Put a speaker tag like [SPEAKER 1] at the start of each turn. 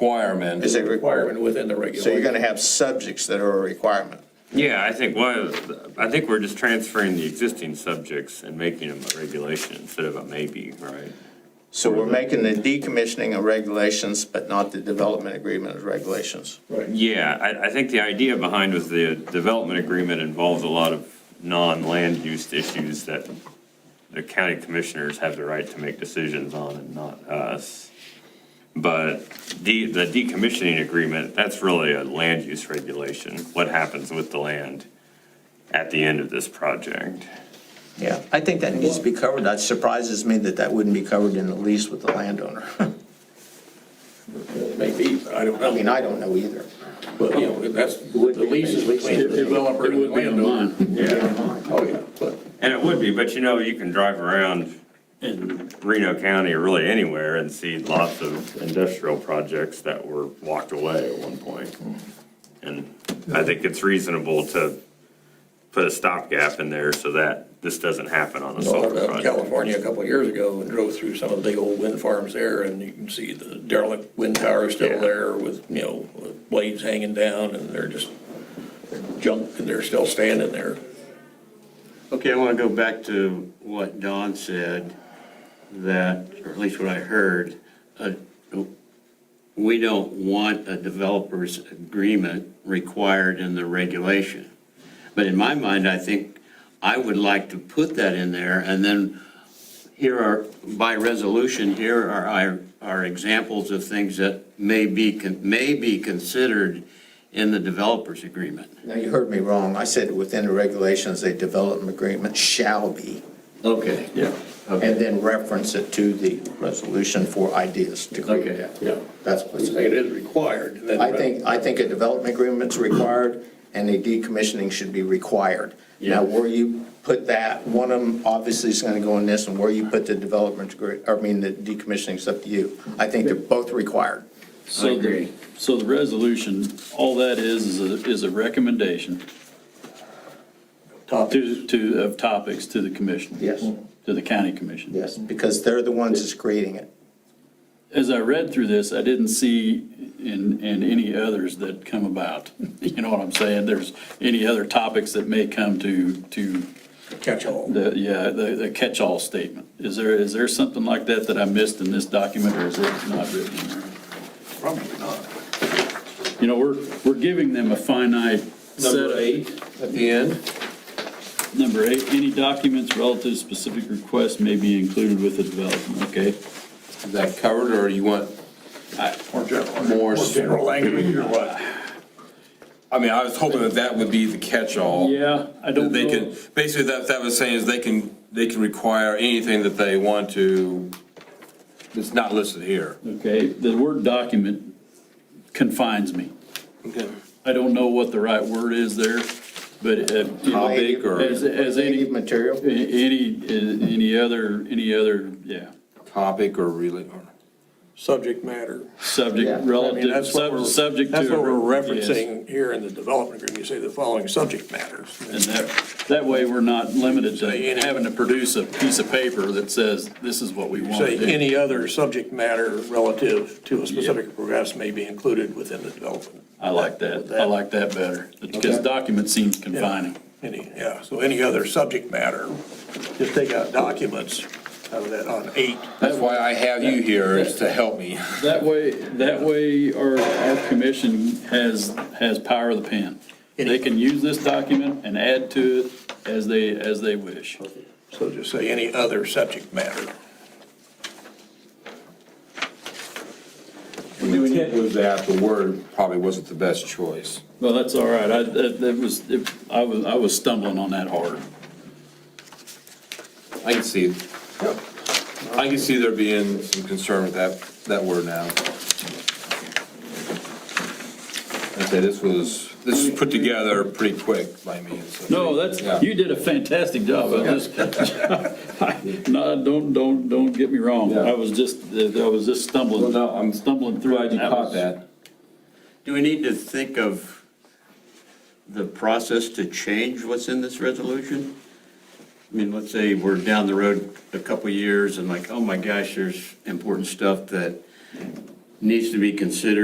[SPEAKER 1] requirement.
[SPEAKER 2] Is it re-
[SPEAKER 3] requirement within the
[SPEAKER 2] So you're
[SPEAKER 3] regulation.
[SPEAKER 2] gonna have subjects that are a requirement.
[SPEAKER 4] Yeah, I think was, I think we're just transferring the existing subjects and making them a regulation instead of a maybe, right?
[SPEAKER 2] So we're making the decommissioning of regulations, but not the development agreement of regulations.
[SPEAKER 3] Right.
[SPEAKER 4] Yeah, I, I think the idea behind was the development agreement involves a lot of non-land use issues that the county commissioners have the right to make decisions on and not us. But the, the decommissioning agreement, that's really a land use regulation, what happens with the land at the end of this project.
[SPEAKER 5] Yeah, I think that needs to be covered. That surprises me that that wouldn't be covered in the lease with the landowner.
[SPEAKER 3] Maybe, but I don't
[SPEAKER 5] I mean,
[SPEAKER 3] know.
[SPEAKER 5] I don't know either.
[SPEAKER 3] But, you know, that's, the lease is between the developer and the landowner. Oh, yeah, but
[SPEAKER 4] And it would be, but you know, you can drive around in Reno County or really anywhere and see lots of industrial projects that were walked away at one point. And I think it's reasonable to put a stopgap in there so that this doesn't happen on a
[SPEAKER 3] I was out
[SPEAKER 4] solar
[SPEAKER 3] in
[SPEAKER 4] project.
[SPEAKER 3] California a couple of years ago and drove through some of the big old wind farms there, and you can see the derelict wind towers
[SPEAKER 4] Yeah.
[SPEAKER 3] still there with, you know, with blades hanging down, and they're just they're junk, and they're still standing there.
[SPEAKER 6] Okay, I want to go back to what Don said, that, or at least what I heard, uh, we don't want a developer's agreement required in the regulation. But in my mind, I think I would like to put that in there, and then here are, by resolution, here are our, are examples of things that may be, con- may be considered in the developer's agreement.
[SPEAKER 5] Now, you heard me wrong. I said within the regulations, a development agreement shall be,
[SPEAKER 6] Okay.
[SPEAKER 3] Yeah.
[SPEAKER 5] and then reference it to the resolution for ideas to create
[SPEAKER 6] Okay,
[SPEAKER 5] that.
[SPEAKER 3] yeah.
[SPEAKER 5] That's what I
[SPEAKER 3] It's like
[SPEAKER 5] said.
[SPEAKER 3] It is required. and then-
[SPEAKER 5] I think, I think a development agreement's required, and a decommissioning should be required. Now,
[SPEAKER 6] Yeah.
[SPEAKER 5] where you put that, one of them obviously is gonna go in this, and where you put the development, agree- I mean, the decommissioning's up to you. I think they're both required.
[SPEAKER 7] So the, so the resolution, all that is, is a, is a recommendation
[SPEAKER 3] Top
[SPEAKER 7] to, to, of topics to the commission.
[SPEAKER 5] Yes.
[SPEAKER 7] To the county commission.
[SPEAKER 5] Yes. Because they're the ones that's creating it.
[SPEAKER 7] As I read through this, I didn't see in, in any others that come about. You know what I'm saying? There's any other topics that may come to, to
[SPEAKER 3] catch all.
[SPEAKER 7] the, yeah, the, the catch-all statement. Is there, is there something like that that I missed in this document or is it not written in there?
[SPEAKER 3] Probably not.
[SPEAKER 7] You know, we're, we're giving them a finite set of.
[SPEAKER 3] Number eight at the end.
[SPEAKER 7] Number eight, any documents relative to specific requests may be included with the development, okay?
[SPEAKER 1] Is that covered, or you want
[SPEAKER 3] More general.
[SPEAKER 1] more?
[SPEAKER 3] More general language or what?
[SPEAKER 1] I mean, I was hoping that that would be the catch-all.
[SPEAKER 7] Yeah, I
[SPEAKER 1] That
[SPEAKER 7] don't
[SPEAKER 1] They
[SPEAKER 7] know.
[SPEAKER 1] can, basically, that, that was saying is they can, they can require anything that they want to, that's not listed here.
[SPEAKER 7] Okay, the word document confines me.
[SPEAKER 1] Okay.
[SPEAKER 7] I don't know what the right word is there, but uh, you know,
[SPEAKER 1] Topic or-
[SPEAKER 7] as, as any,
[SPEAKER 5] Creative material?
[SPEAKER 7] a- any, uh, any other, any other, yeah,
[SPEAKER 1] Topic or really, or.
[SPEAKER 3] Subject matter.
[SPEAKER 5] Yeah, I
[SPEAKER 7] subject
[SPEAKER 5] mean,
[SPEAKER 3] I mean,
[SPEAKER 7] relative,
[SPEAKER 3] that's what
[SPEAKER 7] sub-
[SPEAKER 3] we're-
[SPEAKER 7] subject to.
[SPEAKER 3] That's what we're
[SPEAKER 7] yes.
[SPEAKER 3] referencing here in the development agreement. You say the following subject matters.
[SPEAKER 7] And that, that way we're not limited
[SPEAKER 3] Say
[SPEAKER 7] to
[SPEAKER 3] any-
[SPEAKER 7] having to produce a piece of paper that says, this is what we want
[SPEAKER 3] Say,
[SPEAKER 7] to do.
[SPEAKER 3] any other subject matter relative to a specific progress may be included within the development.
[SPEAKER 7] I like that, I like that better, because document seems confining.
[SPEAKER 3] Any, yeah, so any other subject matter, just take out documents out of that on eight.
[SPEAKER 1] That's why I have you here, is to help me.
[SPEAKER 7] That way, that way our, our commission has, has power of the pen. They can use this document and add to it as they, as they wish.
[SPEAKER 3] So just say any other subject matter.
[SPEAKER 1] The intent was that the word probably wasn't the best choice.
[SPEAKER 7] Well, that's all right, I, that, that was, I was, I was stumbling on that hard.
[SPEAKER 1] I can see, I can see there being some concern with that, that word now. I say this was, this was put together pretty quick by me. so-
[SPEAKER 7] No, that's,
[SPEAKER 1] Yeah.
[SPEAKER 7] you did a fantastic job on this. No, don't, don't, don't get me wrong,
[SPEAKER 1] Yeah.
[SPEAKER 7] I was just, I was just stumbling,
[SPEAKER 1] Well, no, I'm
[SPEAKER 7] stumbling through.
[SPEAKER 1] Glad you caught
[SPEAKER 7] was-
[SPEAKER 1] that.
[SPEAKER 6] Do we need to think of the process to change what's in this resolution? I mean, let's say we're down the road a couple of years and like, oh my gosh, there's important stuff that needs to be considered